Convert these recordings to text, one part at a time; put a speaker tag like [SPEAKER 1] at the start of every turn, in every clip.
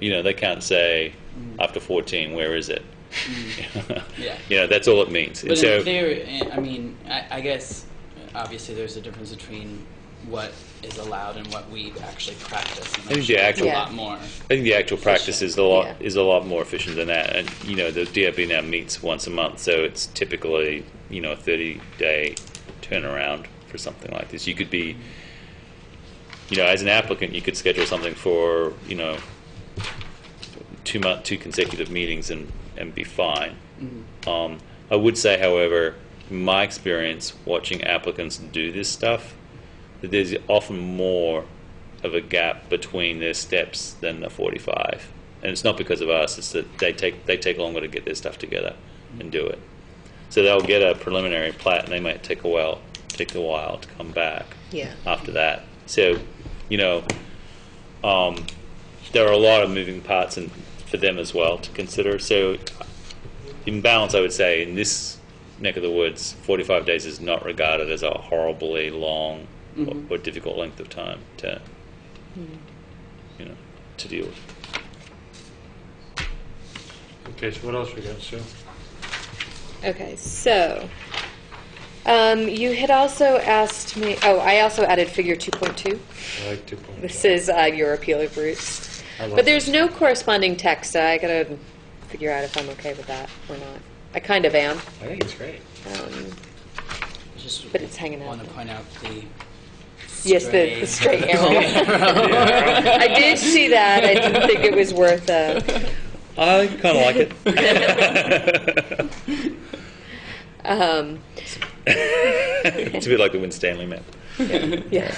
[SPEAKER 1] you know, they can't say after 14, where is it?
[SPEAKER 2] Mm. Yeah.
[SPEAKER 1] you know, that's all it means. And
[SPEAKER 2] But
[SPEAKER 1] so,
[SPEAKER 2] in theory, eh, I mean, I, I guess uh, obviously there's a difference between what is allowed and what we actually practice. And
[SPEAKER 1] I think the actual-
[SPEAKER 2] a lot more.
[SPEAKER 1] I think the actual practice is a lot
[SPEAKER 3] Yeah.
[SPEAKER 1] is a lot more efficient than that. And you know, the DRB now meets once a month, so it's typically you know a 30 day turnaround for something like this. You could
[SPEAKER 2] Mm.
[SPEAKER 1] be, you know, as an applicant, you could schedule something for you know two month two consecutive meetings and and be fine. Um, I would say, however, in my experience watching applicants do this stuff, that there's often more of a gap between their steps than the 45. And it's not because of us, it's that they take, they take longer to get their stuff together and do it. So they'll get a preliminary plat and they might take a while, take a while to come back
[SPEAKER 3] Yeah.
[SPEAKER 1] after that. So, you know, um, there are a lot of moving parts and for them as well to consider. So, in balance, I would say in this neck of the woods, 45 days is not regarded as a horribly long or, or difficult length of time to, you know, to deal with.
[SPEAKER 4] Okay, so what else we got, Sue?
[SPEAKER 3] Okay, so um, you had also asked me. Oh, I also added figure 2.2.
[SPEAKER 4] I like two point.
[SPEAKER 3] This is uh, your appeal of roots.
[SPEAKER 4] I love
[SPEAKER 3] But there's
[SPEAKER 4] it.
[SPEAKER 3] no corresponding text, so I gotta figure out if I'm okay with that or not. I kind of am.
[SPEAKER 4] I think it's great.
[SPEAKER 3] Um,
[SPEAKER 2] Just
[SPEAKER 3] But it's hanging out
[SPEAKER 2] Want to
[SPEAKER 3] there.
[SPEAKER 2] point out the
[SPEAKER 3] yes, the, the straight arrow.
[SPEAKER 4] Yeah.
[SPEAKER 3] I did see that. I didn't think it was worth uh,
[SPEAKER 1] I kind of like it.
[SPEAKER 3] um,
[SPEAKER 1] it's a bit like the Win Stanley map.
[SPEAKER 3] Yeah.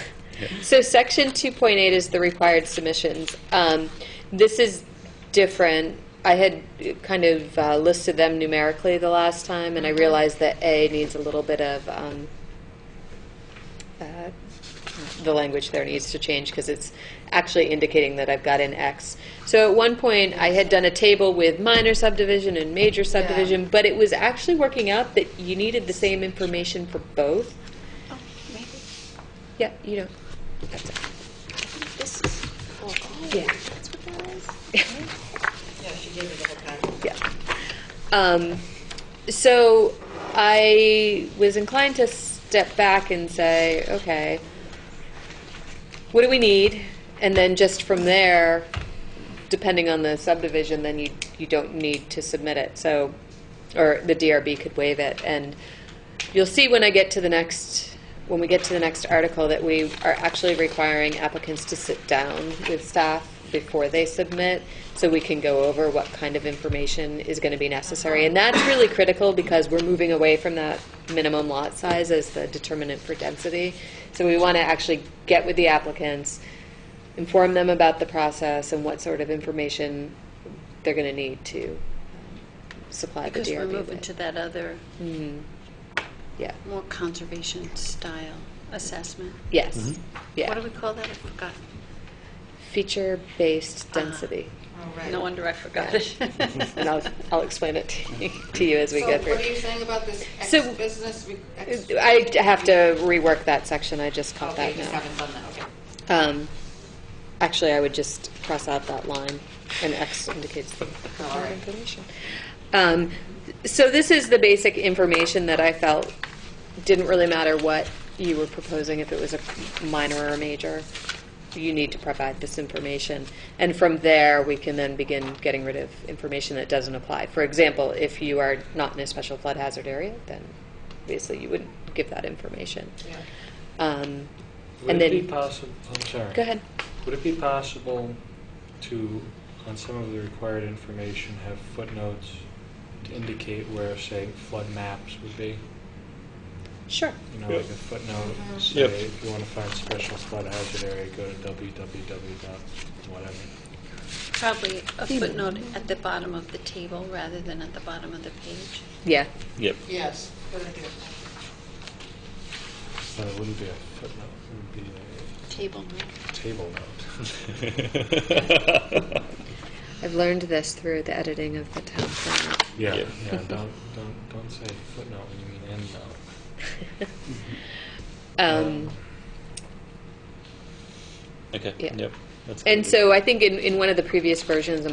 [SPEAKER 3] So section 2.8 is the required submissions. Um, This is different. I had kind of uh, listed them numerically the last time, and I realized that A needs a little bit of, um, uh, the language there needs to change because it's actually indicating that I've got an X. So at one point, I had done a table with minor subdivision and major subdivision, but it was actually working out that you needed the same information for both.
[SPEAKER 5] Oh, maybe
[SPEAKER 3] Yeah, you know,
[SPEAKER 5] this is. Oh, oh,
[SPEAKER 3] Yeah.
[SPEAKER 5] That's what that is.
[SPEAKER 3] Yeah. Um, so I was inclined to step back and say, okay, what do we need? And then just from there, depending on the subdivision, then you, you don't need to submit it. So, or the DRB could waive it. And you'll see when I get to the next, when we get to the next article, that we are actually requiring applicants to sit down with staff before they submit, so we can go over what kind of information is going to be necessary. And that's really critical because we're moving away from that minimum lot size as the determinant for density. So we want to actually get with the applicants, inform them about the process and what sort of information they're going to need to um, supply the
[SPEAKER 5] Because
[SPEAKER 3] DRB
[SPEAKER 5] we're
[SPEAKER 3] with.
[SPEAKER 5] moving to that other,
[SPEAKER 3] Yeah,
[SPEAKER 5] more conservation style assessment.
[SPEAKER 3] yes,
[SPEAKER 5] What do
[SPEAKER 3] yeah.
[SPEAKER 5] we call that? I forgot.
[SPEAKER 3] Feature-based density.
[SPEAKER 5] No wonder I forgot it.
[SPEAKER 3] And I'll, I'll explain it to you- to you as we go
[SPEAKER 6] So Oh, what are
[SPEAKER 3] through.
[SPEAKER 6] you saying about this ex
[SPEAKER 3] So-
[SPEAKER 6] business? re- ex-
[SPEAKER 3] I have to rework that section, I just caught that
[SPEAKER 6] Okay, you just
[SPEAKER 3] now.
[SPEAKER 6] haven't done that, okay.
[SPEAKER 3] Um, Actually, I would just cross out that line, and X indicates the
[SPEAKER 6] Oh, all right.
[SPEAKER 3] information. Um, So this is the basic information that I felt didn't really matter what you were proposing, if it was a minor or a major. You need to provide this information. And from there, we can then begin getting rid of information that doesn't apply. For example, if you are not in a special flood hazard area, then obviously you wouldn't give that information.
[SPEAKER 6] Yeah.
[SPEAKER 3] Um,
[SPEAKER 4] Would
[SPEAKER 3] And
[SPEAKER 4] it be
[SPEAKER 3] then,
[SPEAKER 4] possible, I'm sorry.
[SPEAKER 3] go ahead.
[SPEAKER 4] Would it be possible to, on some of the required information, have footnotes to indicate where, say, flood maps would be?
[SPEAKER 3] Sure.
[SPEAKER 4] You know,
[SPEAKER 1] Yep.
[SPEAKER 4] like a footnote,
[SPEAKER 3] Mm-hmm.
[SPEAKER 6] Mhm.
[SPEAKER 4] say,
[SPEAKER 1] Yep.
[SPEAKER 4] if you want to find special flood hazard area, go to www dot whatever.
[SPEAKER 5] Probably a footnote at the bottom of the table rather than at the bottom of the page.
[SPEAKER 3] Yeah.
[SPEAKER 1] Yep.
[SPEAKER 6] Yes. good idea.
[SPEAKER 4] But it wouldn't be a footnote, it would be a
[SPEAKER 5] Table, right?
[SPEAKER 4] table note.
[SPEAKER 3] I've learned this through the editing of the town plan.
[SPEAKER 4] Yeah,
[SPEAKER 1] Yep.
[SPEAKER 4] yeah, don't, don't, don't say footnote when you mean end note.
[SPEAKER 3] Um,
[SPEAKER 1] Okay.
[SPEAKER 3] Yeah.
[SPEAKER 1] Yep. That's
[SPEAKER 3] And
[SPEAKER 1] good.
[SPEAKER 3] so I think in, in one of the previous versions, I'm